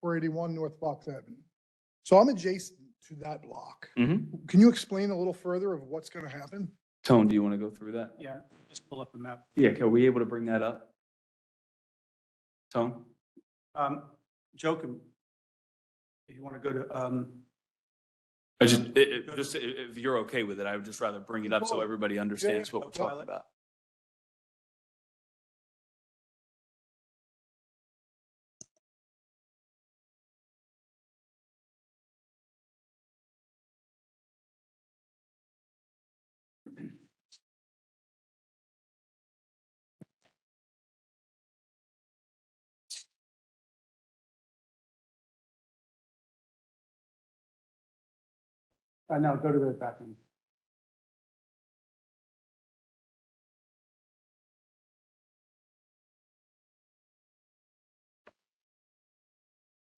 four eighty-one North Fox Avenue. So I'm adjacent to that block. Mhm. Can you explain a little further of what's gonna happen? Tone, do you want to go through that? Yeah, just pull up a map. Yeah, are we able to bring that up? Tone? Um, Joe can, if you want to go to, um, I just, i- i- just i- if you're okay with it, I would just rather bring it up so everybody understands what we're talking about. uh, no, go to the back end.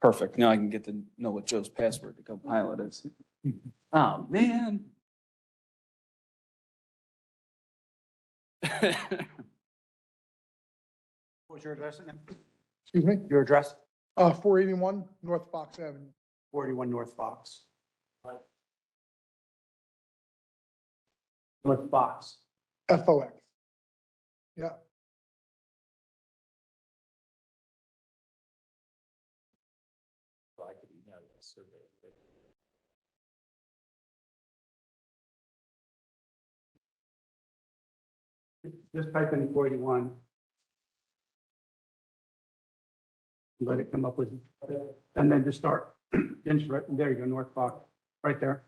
Perfect. Now I can get to know what Joe's password to go pilot is. Oh, man. What was your address again? Excuse me? Your address, Uh, four eighty-one North Fox Avenue. forty-one North Fox. North Fox. FOX. Yeah. Just type in forty-one. Let it come up with, and then just start, inch right, there you go, North Fox, right there.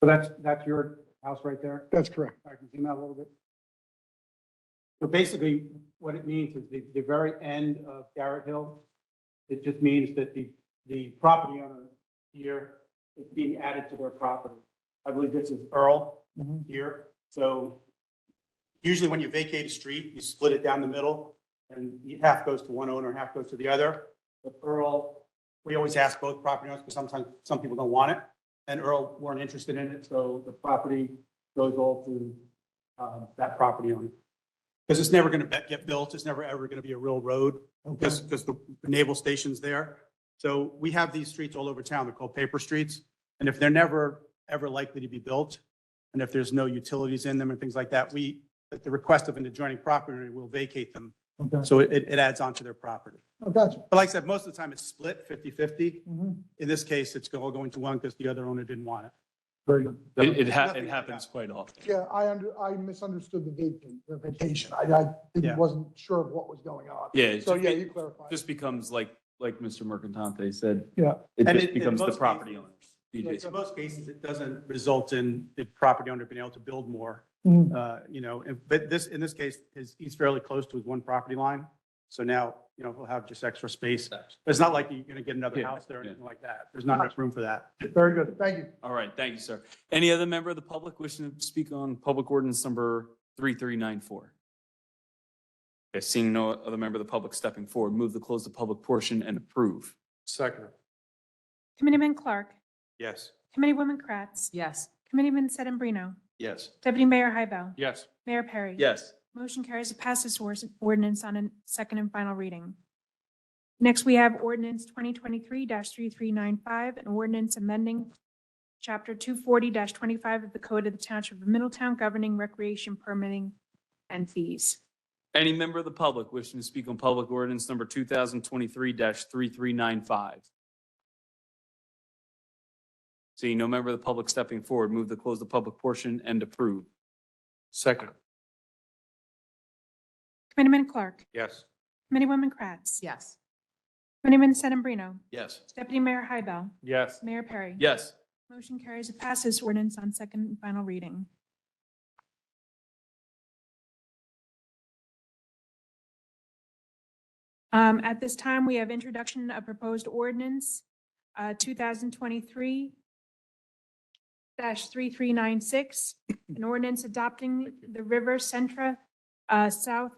So that's, that's your house right there? That's correct. I can zoom out a little bit. So basically, what it means is the, the very end of Garrett Hill, it just means that the, the property owner here is being added to their property. I believe this is Earl here, so usually when you vacate a street, you split it down the middle, and half goes to one owner, half goes to the other. But Earl, we always ask both property owners, because sometimes, some people don't want it, and Earl weren't interested in it, so the property goes all through um, that property owner. Because it's never going to get built, it's never ever going to be a real road, because, because the naval station's there. So we have these streets all over town, they're called paper streets, and if they're never, ever likely to be built, and if there's no utilities in them and things like that, we, at the request of an adjoining property, owner, we'll vacate them. Okay. So it, it adds on to their property. Oh, gotcha. But like I said, most of the time it's split 50-50. Mhm. In this case, it's all going to one because the other owner didn't want it. Very good. It, it ha- Nothing it like happens that. quite often. Yeah, I under, I misunderstood the vacation, the vacation. I, I Yeah. didn't- wasn't sure of what was going on. Yeah. it's So, just- yeah, it you clarified. Just becomes like, like Mr. Mercantante said. Yeah. It And just in becomes the most property cases- owners. Like, DJs. In most cases, it doesn't result in the property owner being able to build more, Mhm. uh, you know, and- but this, in this case, is, he's fairly close to his one property line. So now, you know, he'll have just extra space. It's not like you're going to get another Yeah, house there or yeah. anything like that. There's not enough room for that. Very good. Thank you. All right, thank you, sir. Any other member of the public wishing to speak on public ordinance number 3394? Okay, seeing no other member of the public stepping forward, move to close the public portion and approve. Second. Committeeman Clark. Yes. Committeewoman Kratz. Yes. Committeeman Sedambrino. Yes. Deputy Mayor Hybel. Yes. Mayor Perry. Yes. Motion carries to pass this or- ordinance on a second and final reading. Next, we have ordinance twenty twenty-three three-three-nine-five, an ordinance amending chapter two forty twenty-five of the Code of the Township of Middletown governing recreation permitting and fees. Any member of the public wishing to speak on public ordinance number 2023-3395? Seeing no member of the public stepping forward, move to close the public portion and approve. Second. Committeeman Clark. Yes. Committeewoman Kratz. Yes. Committeeman Sedambrino. Yes. Deputy Mayor Hybel. Yes. Mayor Perry. Yes. Motion carries to pass this ordinance on second and final reading. Um, At this time, we have introduction of proposed ordinance uh, 2023-3396, an ordinance adopting the River Centra uh, South